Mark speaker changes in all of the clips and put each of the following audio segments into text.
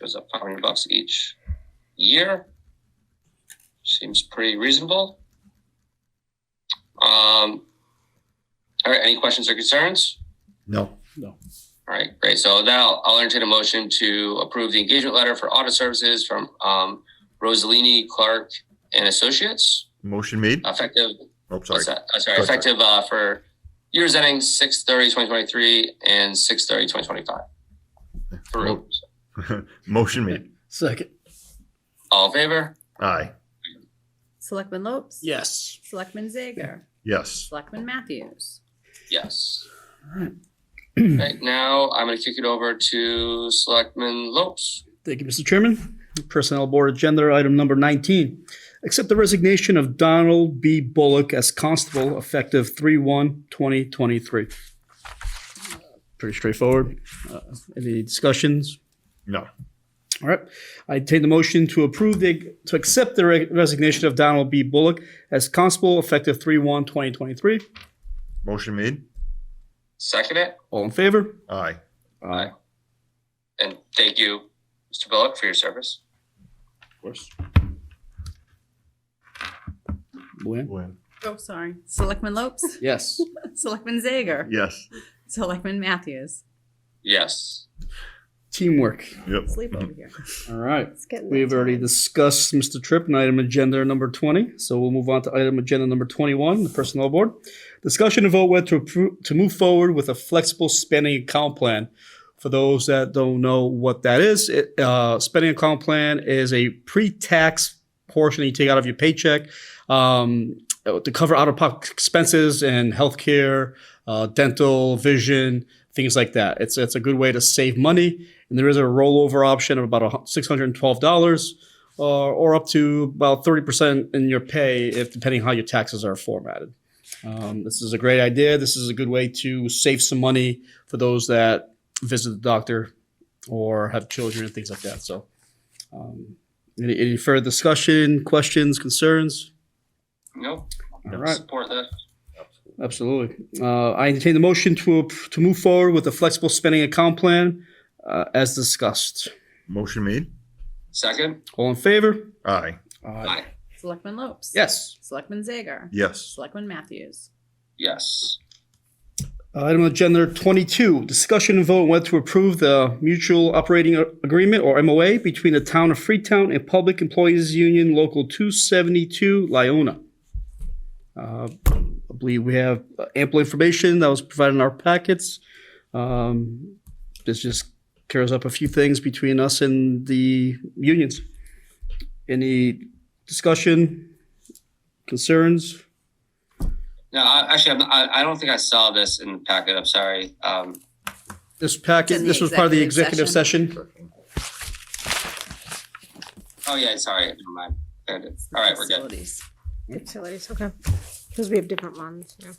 Speaker 1: was up 500 bucks each year. Seems pretty reasonable. Um, all right, any questions or concerns?
Speaker 2: No,
Speaker 1: All right, great. So now I'll entertain a motion to approve the engagement letter for audit services from um, Rosalini Clark and Associates,
Speaker 3: Motion made.
Speaker 1: effective
Speaker 3: Oh,
Speaker 1: What's
Speaker 3: sorry.
Speaker 1: that? Uh, sorry,
Speaker 3: Go ahead.
Speaker 1: effective uh, for years ending 6/30/2023 and 6/30/2025. Through.
Speaker 3: Motion made.
Speaker 2: second.
Speaker 1: All in favor?
Speaker 3: Aye.
Speaker 4: Selectman Lopes?
Speaker 2: Yes.
Speaker 4: Selectman Zager?
Speaker 3: Yes.
Speaker 4: Selectman Matthews?
Speaker 1: Yes.
Speaker 2: Alright.
Speaker 1: Right now, I'm going to kick it over to Selectman Lopes.
Speaker 2: Thank you, Mr. Chairman. Personnel Board Agenda Item Number 19. Accept the resignation of Donald B. Bullock as Constable effective 3/1/2023. Pretty straightforward. Uh, Any discussions?
Speaker 3: No.
Speaker 2: All right. I take the motion to approve the, to accept the re- resignation of Donald B. Bullock as Constable effective 3/1/2023.
Speaker 3: Motion made.
Speaker 1: Second it.
Speaker 2: All in favor?
Speaker 3: Aye.
Speaker 2: Aye. Of
Speaker 1: And thank you, Mr. Bullock, for your service.
Speaker 2: course. Luann?
Speaker 3: Win.
Speaker 4: Oh, sorry. Selectman Lopes?
Speaker 2: Yes.
Speaker 4: Selectman Zager?
Speaker 3: Yes.
Speaker 4: Selectman Matthews?
Speaker 1: Yes.
Speaker 2: Teamwork.
Speaker 3: Yep.
Speaker 4: Sleep over
Speaker 1: Mm-hmm.
Speaker 4: here.
Speaker 2: All right.
Speaker 4: It's getting
Speaker 2: We've
Speaker 4: late.
Speaker 2: already discussed Mr. Tripp and item agenda number 20, so we'll move on to item agenda number 21, the Personnel Board. Discussion and vote whether to approve, to move forward with a flexible spending account plan. For those that don't know what that is, it, uh, spending account plan is a pre-tax portion that you take out of your paycheck um, to cover out-of-pocket expenses and healthcare, uh, dental, vision, things like that. It's it's a good way to save money and there is a rollover option of about a hu- $612 uh, or up to about 30% in your pay if depending how your taxes are formatted um, this is a great idea this is a good way to save some money for those that visit the doctor or have children and things like that so um, any, any further discussion questions concerns
Speaker 1: No.
Speaker 2: all right
Speaker 1: Support that.
Speaker 2: Absolutely. Uh, I entertain the motion to ap- to move forward with the flexible spending account plan uh, as discussed.
Speaker 3: Motion made.
Speaker 1: Second.
Speaker 2: All in favor?
Speaker 3: Aye.
Speaker 2: Aye.
Speaker 4: Selectman Lopes?
Speaker 2: Yes.
Speaker 4: Selectman Zager?
Speaker 3: Yes.
Speaker 4: Selectman Matthews?
Speaker 1: Yes.
Speaker 2: Uh, Item on agenda 22, discussion and vote whether to approve the mutual operating A- agreement or MOA between the town of Freetown and Public Employees Union Local 272, Lyona. Uh, I believe we have ample information that was provided in our packets. Um, This just clears up a few things between us and the unions. Any discussion, concerns?
Speaker 1: No, I, actually, I'm, I, I don't think I saw this in the packet. I'm sorry. Um,
Speaker 2: This packet,
Speaker 4: It's in the
Speaker 2: this was part of the
Speaker 4: executive
Speaker 2: executive session.
Speaker 1: oh, yeah, sorry. Never mind. There it is. All right, we're good.
Speaker 4: Facilities.
Speaker 5: Facilities, okay. Because we have different ones, yeah.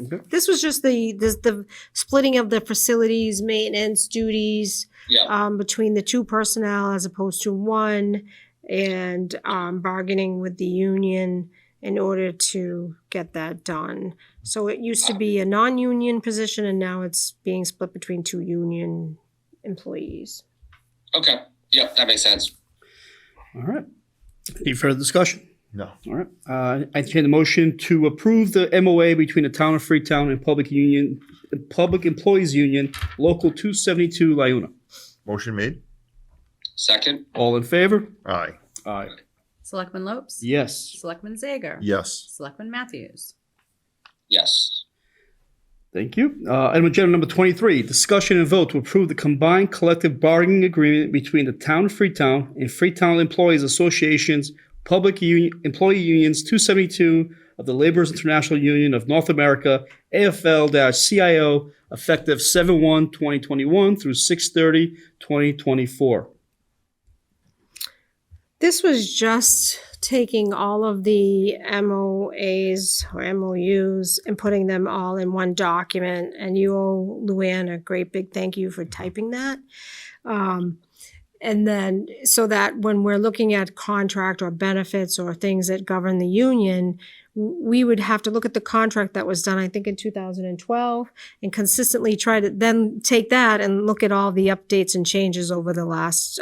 Speaker 2: Okay.
Speaker 5: This was just the, this, the splitting of the facilities, maintenance duties,
Speaker 1: Yeah.
Speaker 5: um, between the two personnel as opposed to one, and, um, bargaining with the union in order to get that done. So it used to be a non-union position, and now it's being split between two union employees.
Speaker 1: Okay. Yep, that makes sense.
Speaker 2: All right. Any further discussion?
Speaker 3: No.
Speaker 2: All right. Uh, I entertain the motion to approve the MOA between the town of Freetown and Public Union, Public Employees Union, Local 272, Lyuna.
Speaker 3: Motion made.
Speaker 1: Second.
Speaker 2: All in favor?
Speaker 3: Aye.
Speaker 2: Aye.
Speaker 4: Selectman Lopes?
Speaker 2: Yes.
Speaker 4: Selectman Zager?
Speaker 3: Yes.
Speaker 4: Selectman Matthews?
Speaker 1: Yes.
Speaker 2: Thank you. Uh, Item agenda number 23, discussion and vote to approve the combined collective bargaining agreement between the Town of Freetown and Freetown Employees Associations, Public Union, Employee Unions 272 of the Laborers International Union of North America, AFL-CIO, effective 7/1/2021 through 6/30/2024.
Speaker 5: This was just taking all of the MOAs or MOUs and putting them all in one document. And you owe Luann a great big thank you for typing that. Um, and then so that when we're looking at contract or benefits or things that govern the union, w- we would have to look at the contract that was done, I think, in 2012 and consistently try to then take that and look at all the updates and changes over the last